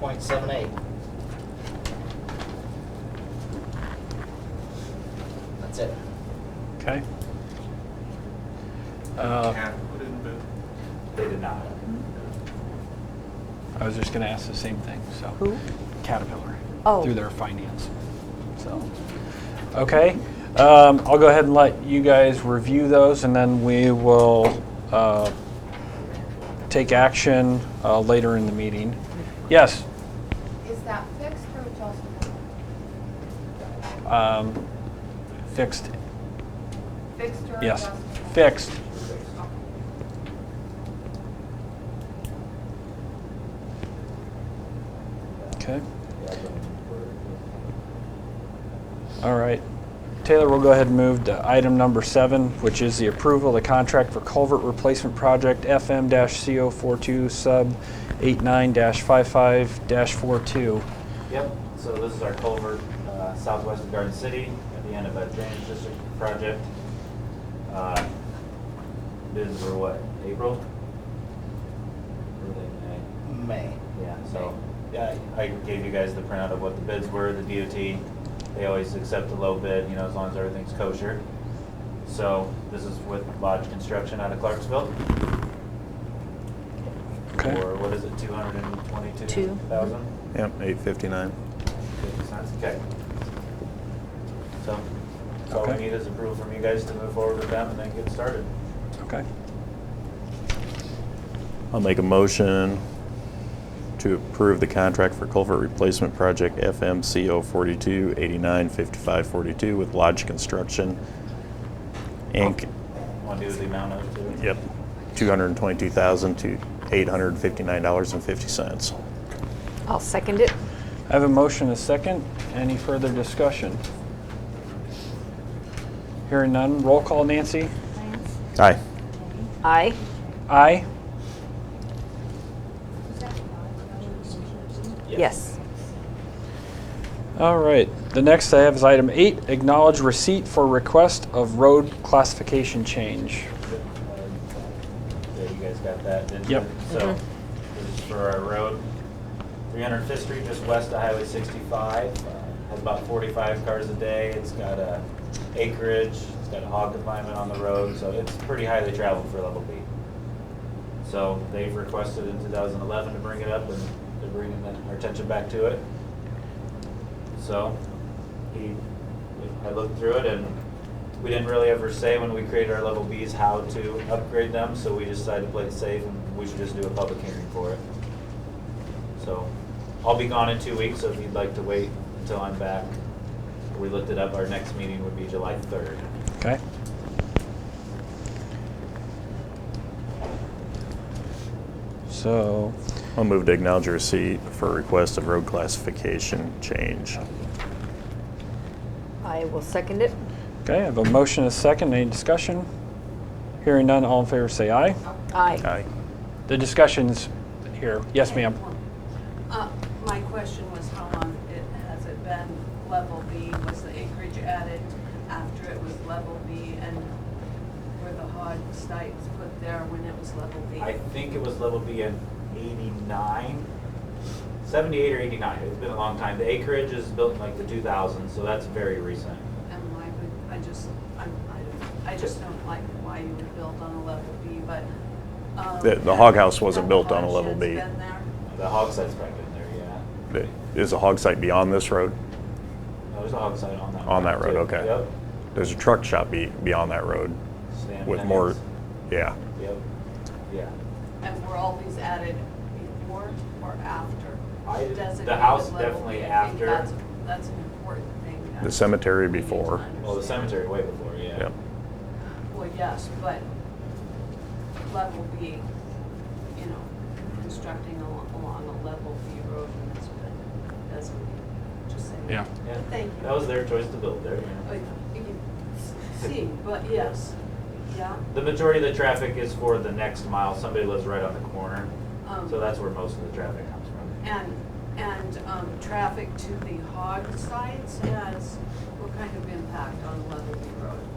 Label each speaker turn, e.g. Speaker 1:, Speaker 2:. Speaker 1: point seven eight. That's it.
Speaker 2: Okay. Uh,
Speaker 3: put in bid.
Speaker 4: They did not.
Speaker 2: I was just going to ask the same thing, so.
Speaker 5: Who?
Speaker 2: Caterpillar.
Speaker 5: Oh.
Speaker 2: Through their finance. So, okay. Um, I'll go ahead and let you guys review those and then we will uh, take action uh, later in the meeting. Yes?
Speaker 6: Is that fixed or adjustable?
Speaker 2: um, Fixed,
Speaker 6: Fixed or adjustable?
Speaker 2: yes, fixed. Okay. All right. Taylor, we'll go ahead and move to item number seven, which is the approval of the contract for culvert replacement project FM-CO42 sub 89-55-42.
Speaker 4: Yep, so this is our culvert, uh, southwest of Garden City, at the end of a drainage district project. Uh, Bids were what, April? Were they May?
Speaker 1: May.
Speaker 4: Yeah, so, yeah, I gave you guys the printout of what the bids were, the DOT, they always accept the low bid, you know, as long as everything's kosher. So this is with Lodge Construction out of Clarksville.
Speaker 2: Okay.
Speaker 4: For, what is it, two hundred and twenty-two thousand?
Speaker 3: Yep, eight fifty-nine.
Speaker 4: Fifty cents, okay. So, that's all we
Speaker 2: Okay.
Speaker 4: need is approval from you guys to move forward with them and then get started.
Speaker 2: Okay.
Speaker 3: I'll make a motion to approve the contract for culvert replacement project FMCO forty-two eighty-nine fifty-five forty-two with Lodge Construction, Inc.
Speaker 4: Want to do the amount of two?
Speaker 3: Yep, two hundred and twenty-two thousand to eight hundred and fifty-nine dollars and fifty cents.
Speaker 5: I'll second it.
Speaker 2: I have a motion, a second. Any further discussion? Hearing none. Roll call, Nancy.
Speaker 6: Lance,
Speaker 3: Aye.
Speaker 7: 嗯
Speaker 5: Aye.
Speaker 2: Aye.
Speaker 6: is that five?
Speaker 5: Yes.
Speaker 2: All right. The next I have is item eight, acknowledge receipt for request of road classification change.
Speaker 4: Yeah, you guys got that, didn't you?
Speaker 2: Yep.
Speaker 4: So, this is for our road, 305th Street, just west of Highway 65. uh, Has about 45 cars a day. It's got a acreage, it's got a hog confinement on the road, so it's pretty highly traveled for level B. So they've requested in 2011 to bring it up, and they're bringing that- our attention back to it. So, he, I looked through it and we didn't really ever say when we created our level Bs how to upgrade them, so we decided to play it safe and we should just do a public hearing for it. So, I'll be gone in two weeks, so if you'd like to wait until I'm back, we looked it up, our next meeting would be July third.
Speaker 2: Okay. So,
Speaker 3: I'll move to acknowledge receipt for request of road classification change.
Speaker 5: I will second it.
Speaker 2: okay, I have a motion, a second. Any discussion? Hearing none. All in favor, say aye.
Speaker 5: Aye.
Speaker 3: Aye.
Speaker 2: The discussion's here. Yes, ma'am.
Speaker 7: Uh, My question was how long it, has it been level B? Was the acreage added after it was level B and were the hog sites put there when it was level B?
Speaker 4: I think it was level B in eighty-nine, seventy-eight or eighty-nine, it's been a long time. The acreage is built in like the two thousands, so that's very recent.
Speaker 7: And why would, I just, I'm, I don't- I just don't like why you would build on a level B, but. um,
Speaker 3: The- the hog house wasn't
Speaker 7: have
Speaker 3: built
Speaker 7: the
Speaker 3: on a
Speaker 7: hog
Speaker 3: level
Speaker 7: sheds
Speaker 3: B.
Speaker 7: been there?
Speaker 4: The hog site's probably been there, yeah.
Speaker 3: Is a hog site beyond this road?
Speaker 4: No, There's a hog site on that.
Speaker 3: On that road,
Speaker 4: too.
Speaker 3: okay.
Speaker 4: Yep.
Speaker 3: There's a truck shop be, beyond that road
Speaker 4: Stan
Speaker 3: with
Speaker 4: Hennings.
Speaker 3: more, yeah.
Speaker 4: Yep, yeah.
Speaker 7: And were all these added before or after?
Speaker 4: I- the
Speaker 7: Designated
Speaker 4: house
Speaker 7: level
Speaker 4: definitely
Speaker 7: B, I think
Speaker 4: after.
Speaker 7: That's, that's an important thing. that
Speaker 3: The cemetery
Speaker 7: we need to
Speaker 3: before.
Speaker 4: Well, the
Speaker 7: understand.
Speaker 4: cemetery way before, yeah.
Speaker 3: Yep.
Speaker 7: Well, yes, but level B, you know, constructing al- along a level B road and that's been designated, just saying.
Speaker 2: Yeah.
Speaker 4: Yeah.
Speaker 7: Thank you.
Speaker 4: That was their choice to build there,
Speaker 7: But
Speaker 4: yeah.
Speaker 7: you can s- see, but yes, yeah,
Speaker 4: The majority of the traffic is for the next mile. Somebody lives right on the corner.
Speaker 7: Um,
Speaker 4: So that's where most of the traffic comes from.
Speaker 7: and, and, um, traffic to the hog sites has, what kind of impact on level B road?